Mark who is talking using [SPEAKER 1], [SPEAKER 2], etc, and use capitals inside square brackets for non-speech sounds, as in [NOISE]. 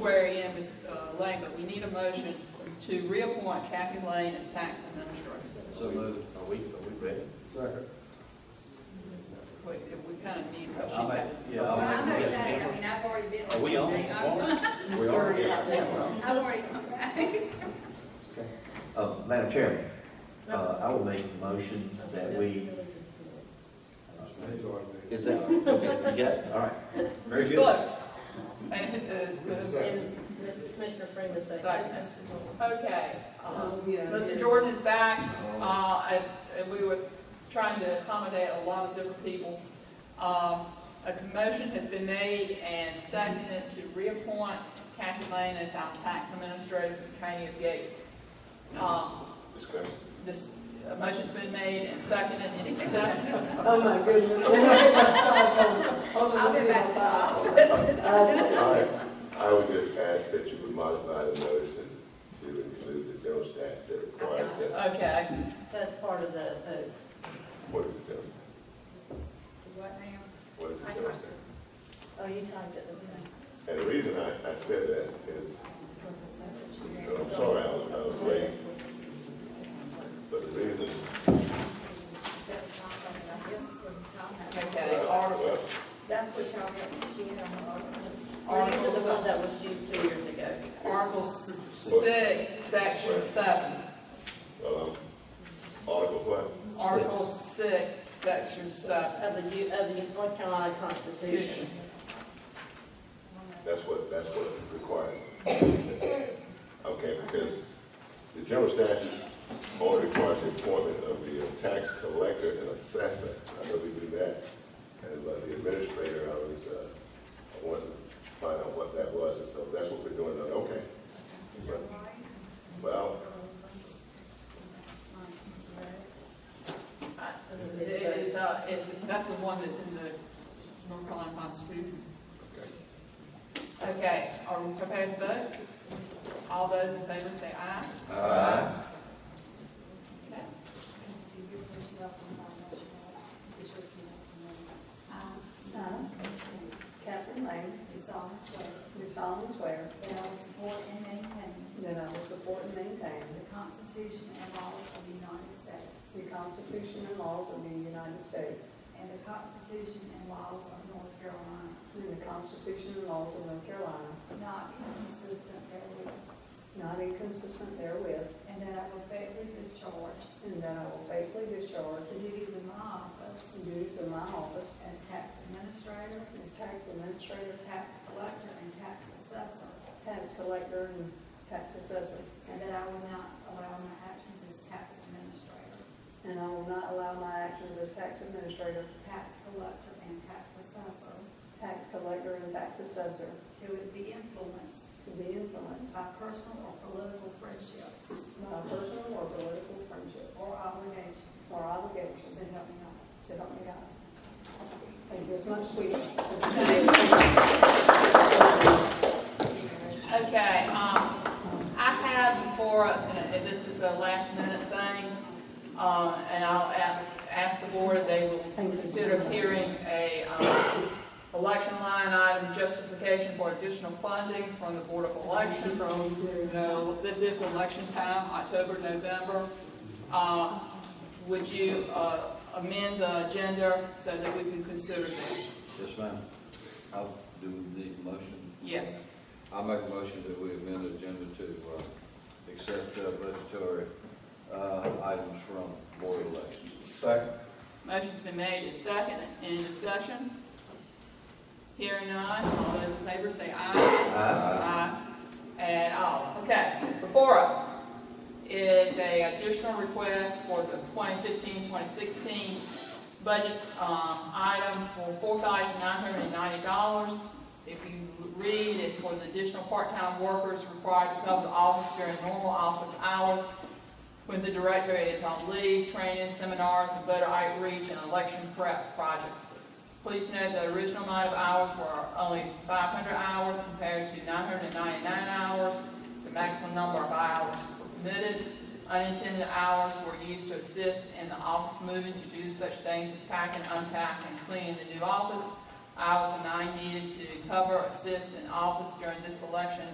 [SPEAKER 1] where I am is uh, lame, but we need a motion to reappoint Kathy Lane as tax administrator.
[SPEAKER 2] So moved. Are we, are we ready?
[SPEAKER 3] Second.
[SPEAKER 1] We, we kind of need what she
[SPEAKER 2] I'll make-
[SPEAKER 1] said.
[SPEAKER 2] Yeah.
[SPEAKER 4] Well,
[SPEAKER 2] I'll
[SPEAKER 4] I'm
[SPEAKER 2] make-
[SPEAKER 4] okay, I mean, I've already been.
[SPEAKER 2] Are we on?
[SPEAKER 4] I've already-
[SPEAKER 2] We are. [LAUGHS] yeah.
[SPEAKER 4] I've already, right.
[SPEAKER 2] Uh, Madam Chairman, uh, I will make the motion that we, is that, okay, you got it? all right. Very good.
[SPEAKER 1] So, and, uh, uh,
[SPEAKER 3] Second.
[SPEAKER 5] Mr. Commissioner Freeman
[SPEAKER 1] Second.
[SPEAKER 5] second.
[SPEAKER 1] uh, Okay. uh, Mr. Jordan is back, uh, and, and we were trying to accommodate a lot of different people. Um, a motion has been made and seconded to reappoint Kathy Lane as our tax administrator for the County of Gates. Um,
[SPEAKER 2] Discussion.
[SPEAKER 1] this, a motion's been made and seconded, any discussion?
[SPEAKER 6] Oh, my goodness. Hold on,
[SPEAKER 4] I'll be
[SPEAKER 6] hold
[SPEAKER 4] back.
[SPEAKER 6] on. Uh,
[SPEAKER 7] I, I would just ask that you would modify the motion to include the Jones Act that requires that,
[SPEAKER 1] Okay,
[SPEAKER 5] That's part of the oath.
[SPEAKER 7] what is the Jones,
[SPEAKER 4] What now?
[SPEAKER 7] what is the Jones Act?
[SPEAKER 5] Oh, you typed it, okay.
[SPEAKER 7] And the reason I, I said that is,
[SPEAKER 4] That's what
[SPEAKER 7] and
[SPEAKER 4] you're
[SPEAKER 7] I'm sorry, I was, I was late, but the reason,
[SPEAKER 1] okay,
[SPEAKER 7] well,
[SPEAKER 1] Ar-
[SPEAKER 7] uh, well,
[SPEAKER 4] That's what y'all, got. she had on
[SPEAKER 5] These are the ones that was used two years ago.
[SPEAKER 1] Article s- six, section seven.
[SPEAKER 7] well, um, Article what?
[SPEAKER 1] Article six, section seven.
[SPEAKER 5] Of the, U- of the North Carolina Constitution.
[SPEAKER 7] That's what, that's what it requires. Okay, because the general statute only requires the appointment of the tax collector and assessor. I know we do that, and uh, the administrator, I was, uh, I wanted to find out what that was, and so that's what we're doing, now. okay. But- Well,
[SPEAKER 1] Uh, It is, uh, it's, that's the one that's in the North Carolina Constitution. Okay, are we prepared to vote? All those in favor say aye.
[SPEAKER 2] Aye.
[SPEAKER 1] Okay.
[SPEAKER 6] Catherine Lane, do solemnly swear
[SPEAKER 8] That I will support and maintain
[SPEAKER 6] that I will support and maintain
[SPEAKER 8] the Constitution and laws of the United States
[SPEAKER 6] the Constitution and laws of the United States
[SPEAKER 8] and the Constitution and laws of North Carolina,
[SPEAKER 6] and the Constitution and laws of North Carolina,
[SPEAKER 8] not inconsistent therewith,
[SPEAKER 6] not inconsistent therewith,
[SPEAKER 8] and that I will faithfully discharge
[SPEAKER 6] and that I will faithfully discharge
[SPEAKER 8] the duties of my office
[SPEAKER 6] the duties of my office
[SPEAKER 8] as tax administrator,
[SPEAKER 6] as tax administrator,
[SPEAKER 8] tax collector, and tax assessor,
[SPEAKER 6] tax collector, and tax assessor,
[SPEAKER 8] and that I will not allow my actions as tax administrator,
[SPEAKER 6] and I will not allow my actions as tax administrator,
[SPEAKER 8] tax collector, and tax assessor
[SPEAKER 6] tax collector, and tax assessor
[SPEAKER 8] to be influenced
[SPEAKER 6] to be influenced
[SPEAKER 8] by personal or political friendships
[SPEAKER 6] by personal or political friendship
[SPEAKER 8] or obligations,
[SPEAKER 6] or obligations
[SPEAKER 8] so help me God.
[SPEAKER 6] So help me God. Thank you, it's much sweeter.
[SPEAKER 1] Okay, um, I have before us, and it- this is a last minute thing, um, and I'll a- ask the board, if they will consider hearing a, um, election line item justification for additional funding from the Board of Elections. You know, this is election time, October, November. Uh, would you, uh, amend the agenda so that we can consider this?
[SPEAKER 2] Yes, ma'am.
[SPEAKER 3] I'll do the motion.
[SPEAKER 1] Yes.
[SPEAKER 3] I'll make a motion that we amend the agenda to, uh, accept uh, budgetary, uh, items from board elections.
[SPEAKER 2] Second.
[SPEAKER 1] Motion's been made and seconded. Any discussion? Hearing none, all those in favor say aye.
[SPEAKER 2] Aye.
[SPEAKER 1] Aye. And all. Okay, before us is a additional request for the 2015-2016 budget um, item for $4,990. If you read, it's for the additional part-time workers required to come to office during normal office hours when the director is on leave, training, seminars, and voter outreach and election prep projects. Please note the original amount of hours were only 500 hours compared to 999 hours. The maximum number of hours permitted. Unintended hours were used to assist in the office moving to do such things as packing, unpacking, and cleaning the new office. Hours of nine needed to cover, assist in office during this election